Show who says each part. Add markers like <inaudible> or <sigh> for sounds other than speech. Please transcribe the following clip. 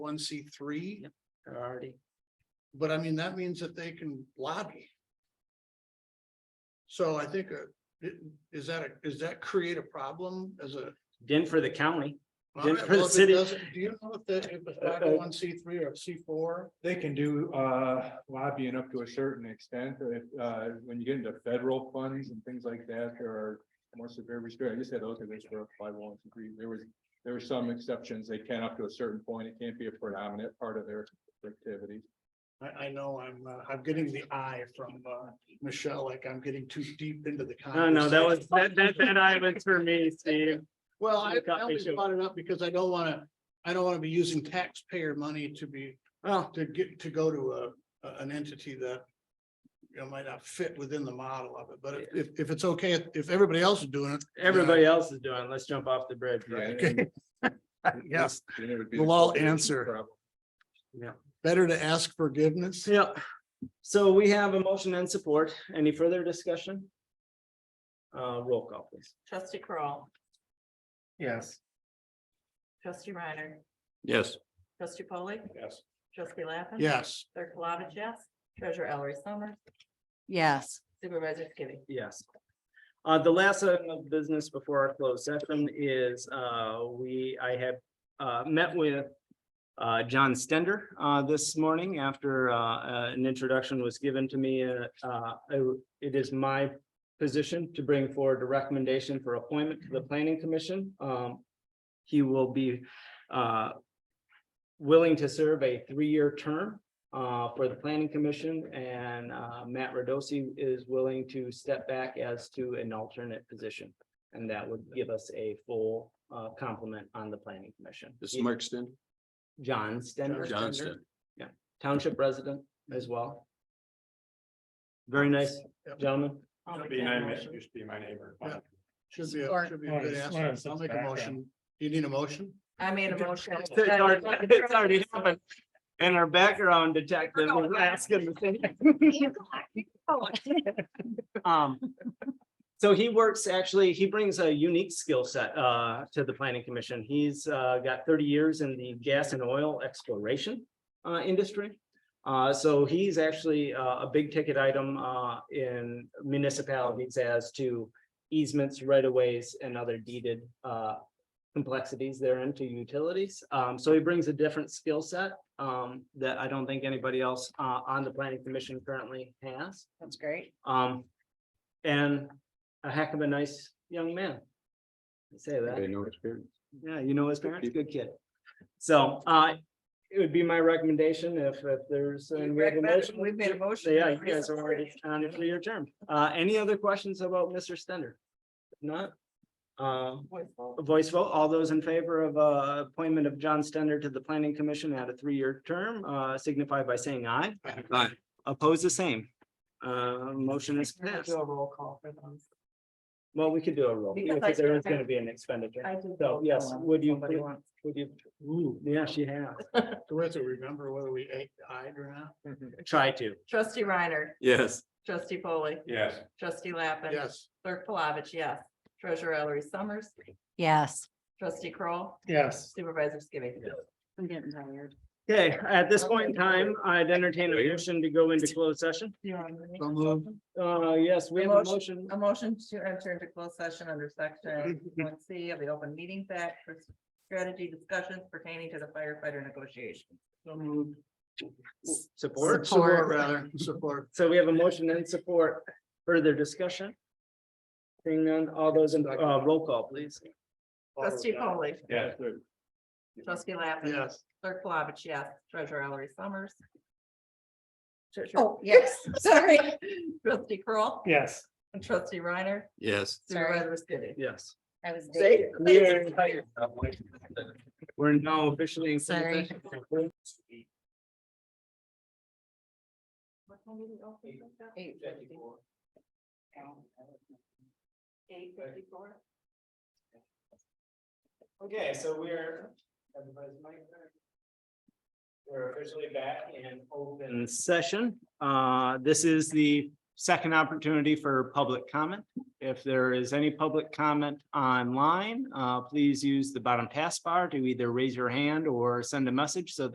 Speaker 1: one C three,
Speaker 2: Yep. They're already,
Speaker 1: but I mean, that means that they can lobby. So I think, uh, it, is that, a- is that create a problem as a?
Speaker 2: didn't for the county.
Speaker 1: Well,
Speaker 2: Then
Speaker 1: I-
Speaker 2: for the
Speaker 1: well, if it
Speaker 2: city-
Speaker 1: doesn't- Do you know if the, if
Speaker 3: Uh, uh,
Speaker 1: it's one C three or C four?
Speaker 3: They can do uh lobbying up to a certain extent, but if uh when you get into federal funds and things like that, there are. More severe restrictions, I just had those of this were by one degree, there was, there were some exceptions, they can up to a certain point, it can't be a predominant part of their activity.
Speaker 1: I, I know I'm, uh, I'm getting the eye from, uh, Michelle, like I'm getting too deep into the.
Speaker 2: No, no, that was,
Speaker 1: conversation.
Speaker 2: that, that, that I was for me, Steve.
Speaker 1: Well, I
Speaker 2: You got
Speaker 1: I
Speaker 2: me,
Speaker 1: only
Speaker 2: Joe.
Speaker 1: brought it up because I don't wanna, I don't wanna be using taxpayer money to be,
Speaker 2: Well,
Speaker 1: to get, to go to a, a- an entity that. You know, might not fit within the model of it, but if- if, if it's okay, if- if everybody else is doing it.
Speaker 2: everybody else is doing, it. let's jump off the bridge. right?
Speaker 3: Okay.
Speaker 1: Yes,
Speaker 3: Then it would be.
Speaker 1: We'll all answer.
Speaker 3: Problem.
Speaker 1: better to ask forgiveness.
Speaker 2: Yeah, so we have a motion and support. Any further discussion? Uh, roll call, please.
Speaker 4: Trustee Crawl,
Speaker 1: Yes.
Speaker 4: trustee Reiner,
Speaker 5: Yes.
Speaker 4: trustee polley
Speaker 1: Yes.
Speaker 4: trustee Lappin.
Speaker 1: Yes,
Speaker 4: Clerk Plavich, yes. Treasurer Ellery Summers,
Speaker 6: Yes,
Speaker 4: Supervisor Skibby.
Speaker 2: Yes. Uh, the last item of business before our closed session is, uh, we, I have, uh, met with. Uh, John Stender, uh, this morning after, uh, uh, an introduction was given to me, uh, uh, it is my. Position to bring forward a recommendation for appointment to the planning commission, um. He will be, uh. Willing to serve a three-year term, uh, for the planning commission and, uh, Matt Radosi is willing to step back as to an alternate position. And that would give us a full, uh, complement on the planning commission.
Speaker 5: This is Mark Sten,
Speaker 2: John Stender.
Speaker 5: Johnston.
Speaker 2: Township resident as well. Very nice, gentlemen.
Speaker 4: I'll make that
Speaker 3: Behind me,
Speaker 4: motion.
Speaker 3: used to be my neighbor.
Speaker 1: Yeah. should be, a- should be a good answer. I'll make a motion. Do you need a motion?
Speaker 4: I made a motion.
Speaker 2: It's already- it's already happened. And our background detective was asking the same. Um, so he works, actually, he brings a unique skill set, uh, to the planning commission. He's, uh, got thirty years in the gas and oil exploration, uh, industry. Uh, so he's actually, uh, a big ticket item, uh, in municipalities as to easements, right of ways and other deeded, uh, complexities therein to utilities. Um, so he brings a different skill set um, that I don't think anybody else uh, on the planning commission currently has.
Speaker 6: that's great.
Speaker 2: Um, and a heck of a nice young man. I Say
Speaker 5: They
Speaker 2: that,
Speaker 5: know experience.
Speaker 2: yeah, you know his parents, good kid. So uh, it would be my recommendation if, if there's. and we have a motion.
Speaker 4: We've made a motion.
Speaker 2: Yeah, you guys are already on it for your term. Uh, any other questions about Mr. Stender? If Not? Um,
Speaker 4: Voice vote.
Speaker 2: a voice vote. All those in favor of uh appointment of John Stender to the planning commission at a three-year term uh signify by saying aye.
Speaker 5: Aye.
Speaker 2: Oppose the same. Uh, motion is
Speaker 4: We're gonna
Speaker 2: passed.
Speaker 4: Do a roll call for those.
Speaker 2: Well, we could do a roll
Speaker 4: Because I-
Speaker 2: because there is gonna be an expenditure.
Speaker 4: I did
Speaker 2: So,
Speaker 4: roll
Speaker 2: yes,
Speaker 4: call on
Speaker 2: would you
Speaker 4: somebody
Speaker 2: please-
Speaker 4: once.
Speaker 2: Would you? Yeah, she has.
Speaker 1: Do we have to remember whether we ate, eyed or not?
Speaker 3: Mm-hmm.
Speaker 2: Try to.
Speaker 4: Trustee Reiner,
Speaker 5: Yes.
Speaker 4: trustee polley
Speaker 3: Yes.
Speaker 4: trustee Lappin.
Speaker 1: Yes.
Speaker 4: Clerk Plavich, yes. Treasurer Ellery Summers,
Speaker 6: Yes.
Speaker 4: trustee Kroll,
Speaker 1: Yes.
Speaker 4: Supervisor Skibby.
Speaker 6: I'm getting tired.
Speaker 2: Okay, at this point in time, I'd entertain a motion to go into closed session.
Speaker 4: You want me?
Speaker 1: So moved.
Speaker 2: Uh, yes, we have a
Speaker 4: Motion.
Speaker 2: motion.
Speaker 4: A motion to enter into closed session under
Speaker 1: Mm-hmm,
Speaker 4: section one C of the Open Meetings Act for strategy discussions pertaining to the firefighter negotiations.
Speaker 1: So moved.
Speaker 2: Support.
Speaker 1: Support rather, support.
Speaker 2: So we have a motion and support. Further discussion? Seeing none, all those in, uh, roll call, please.
Speaker 4: Trustee Polly,
Speaker 3: Yes.
Speaker 4: trustee Lappin.
Speaker 1: Yes.
Speaker 4: Clerk Plavich, yes. Treasurer Ellery Summers.
Speaker 6: Oh, yes, <laughs> sorry.
Speaker 4: Trustee Kroll,
Speaker 1: Yes.
Speaker 4: and trustee Reiner,
Speaker 5: Yes.
Speaker 6: Sorry.
Speaker 4: Supervisor Skibby.
Speaker 2: Yes.
Speaker 6: I was.
Speaker 2: We are- We're now officially. in
Speaker 6: Sorry.
Speaker 4: Eight fifty-four. Eight fifty-four.
Speaker 2: Okay, so we're. We're officially back in open. Session, uh, this is the second opportunity for public comment. If there is any public comment online, uh, please use the bottom taskbar to either raise your hand or send a message so